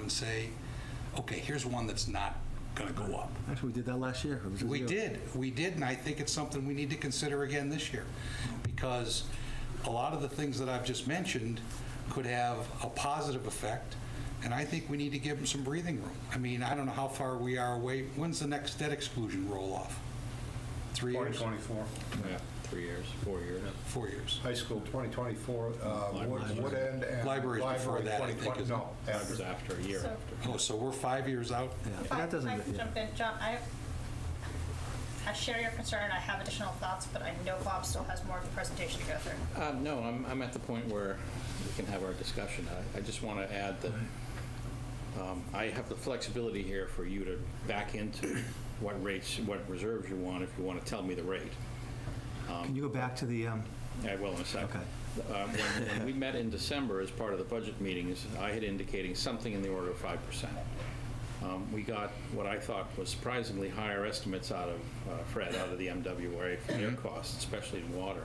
and say, okay, here's one that's not going to go up. Actually, we did that last year. It was We zero. did, we did, and I think it's something we need to consider again this year, because a lot of the things that I've just mentioned could have a positive effect, and I think we need to give them some breathing room. I mean, I don't know how far we are away, when's the next debt exclusion roll-off? Three years? 2024, Yeah, three years, four years. Four years. high school, 2024, uh, Libraries. Wood- Wood End and. Libraries before Library that, I think, 2020 isn't it? No, It was after. after, a year So- after. Oh, so we're five years out? Yeah, If but I that if doesn't. I can yeah. jump in, John, I, I share your concern, I have additional thoughts, but I know Bob still has more of the presentation to go through. Uh, No, I'm, I'm at the point where we can have our discussion. I- I just want to add that um, I have the flexibility here for you to back into what rates, what reserves you want, if you want to tell me the rate. Can you go back to the, um, I will in a second. Okay. Uh, When when we met in December as part of the budget meetings, I had indicating something in the order of 5%. Um, We got what I thought was surprisingly higher estimates out of uh, Fred, out of the MWRA for their costs, especially in water.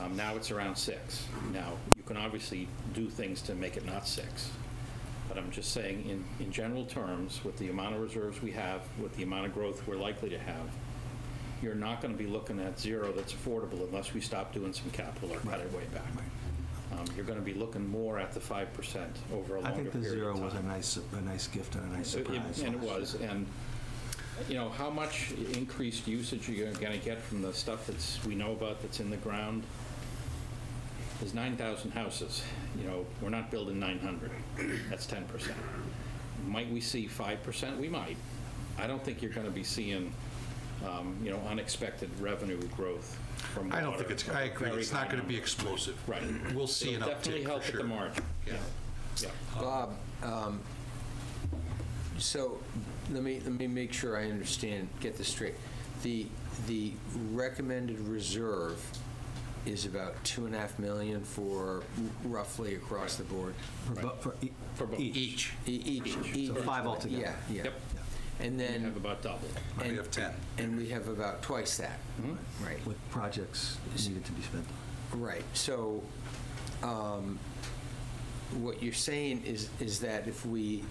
Um, Now it's around 6. Now, you can obviously do things to make it not 6. But I'm just saying, in, in general terms, with the amount of reserves we have, with the amount of growth we're likely to have, you're not going to be looking at zero that's affordable unless we stop doing some capital or cut it way back. Um, You're going to be looking more at the 5% over a I longer think the period zero of was a time. nice, a nice gift and a nice Uh, It- surprise. And it last year. was, and, you know, how much increased usage you're going to get from the stuff that's, we know about that's in the ground? There's 9,000 houses, you know, we're not building 900, that's 10%. Might we see 5%? We might. I don't think you're going to be seeing, um, you know, unexpected revenue growth from water. I don't think it's, I agree, it's not going to be explosive. Right. We'll see an It'll uptick Definitely for help at sure. the margin. Yeah. Yeah. Bob, um, so let me, let me make sure I understand, get this straight. The, the recommended reserve is about two and a half million for roughly across the board? For bo- For e- For both. each. Each, E- Each, each. So five altogether. Yeah, yeah. Yep. And You then. have about double. we and- have 10. And we have about twice that. Hmm? Right. Mm-hmm. With projects needed to be spent. Right, so um, what you're saying is, is that if we,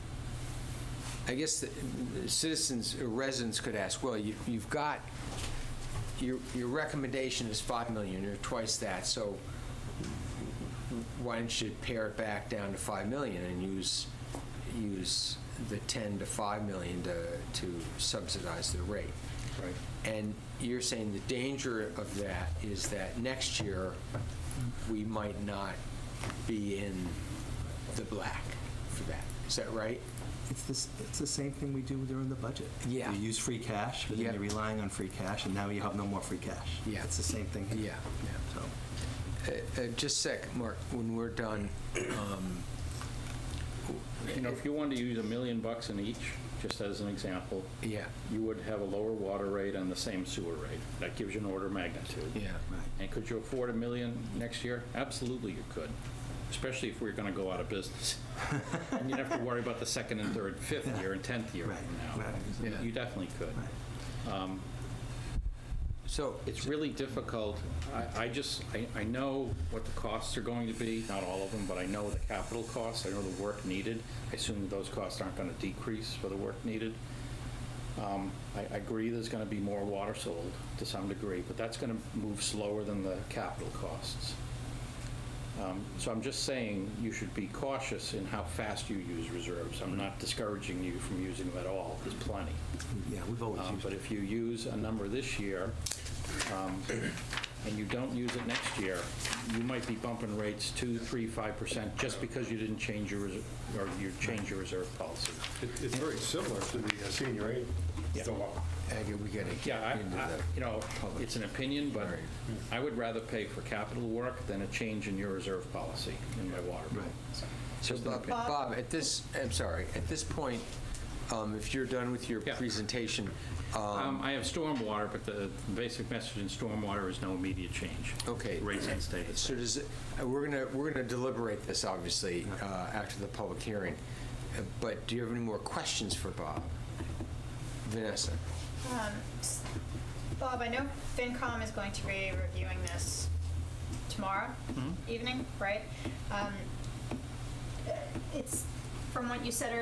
I guess the citizens, or residents could ask, well, you- you've got, your, your recommendation is 5 million, or twice that, so why don't you pare it back down to 5 million and use, use the 10 to 5 million to to subsidize the rate? Right. And you're saying the danger of that is that next year, we might not be in the black for that. Is that right? It's this, it's the same thing we do during the budget. Yeah. You use free cash, but Yeah. then you're relying on free cash, and now you have no more free cash. Yeah. It's the same thing. here. Yeah. Yeah, so. Uh, uh, Just a sec, Mark, when we're done, um, You know, if you wanted to use a million bucks in each, just as an example, yeah, you would have a lower water rate on the same sewer rate. That gives you an order of magnitude. yeah. And could you afford a million next year? Absolutely you could, especially if we're going to go out of business. And you'd have to worry about the second and third, fifth year and 10th year Right, from now. right. You- You definitely could. Um, So, It's really difficult. I, I just, I, I know what the costs are going to be, not all of them, but I know the capital costs, I know the work needed. I assume that those costs aren't going to decrease for the work needed. Um, I, I agree there's going to be more water sold to some degree, but that's going to move slower than the capital costs. Um, So I'm just saying, you should be cautious in how fast you use reserves. I'm not discouraging you from using them at all, there's plenty. Yeah, we've always Um, used But if you use a number this year, um, and you don't use it next year, you might be bumping rates 2, 3, 5% just because you didn't change your, reser- or you changed your reserve policy. It- It's very similar to the uh, senior aid Yeah. dilemma. Aggie, we gotta Yeah, get into I- I, the, you know, it's an opinion, but All right. I would rather pay for capital work than a change in your reserve policy in my water bill. Right. so Just an Bob, opinion. Bob, at this, I'm sorry, at this point, um, if you're done with your Yeah. presentation, Um, um, I have stormwater, but the basic message in stormwater is no immediate change. Okay. Rates and stays. So does, it- uh, we're going to, we're going to deliberate this, obviously, uh, after the public hearing, Uh, but do you have any more questions for Bob? Vanessa? Um, s- Bob, I know FinCom is going to be reviewing this tomorrow Mm-hmm. evening, right? Um, uh, It's, from what you said earlier.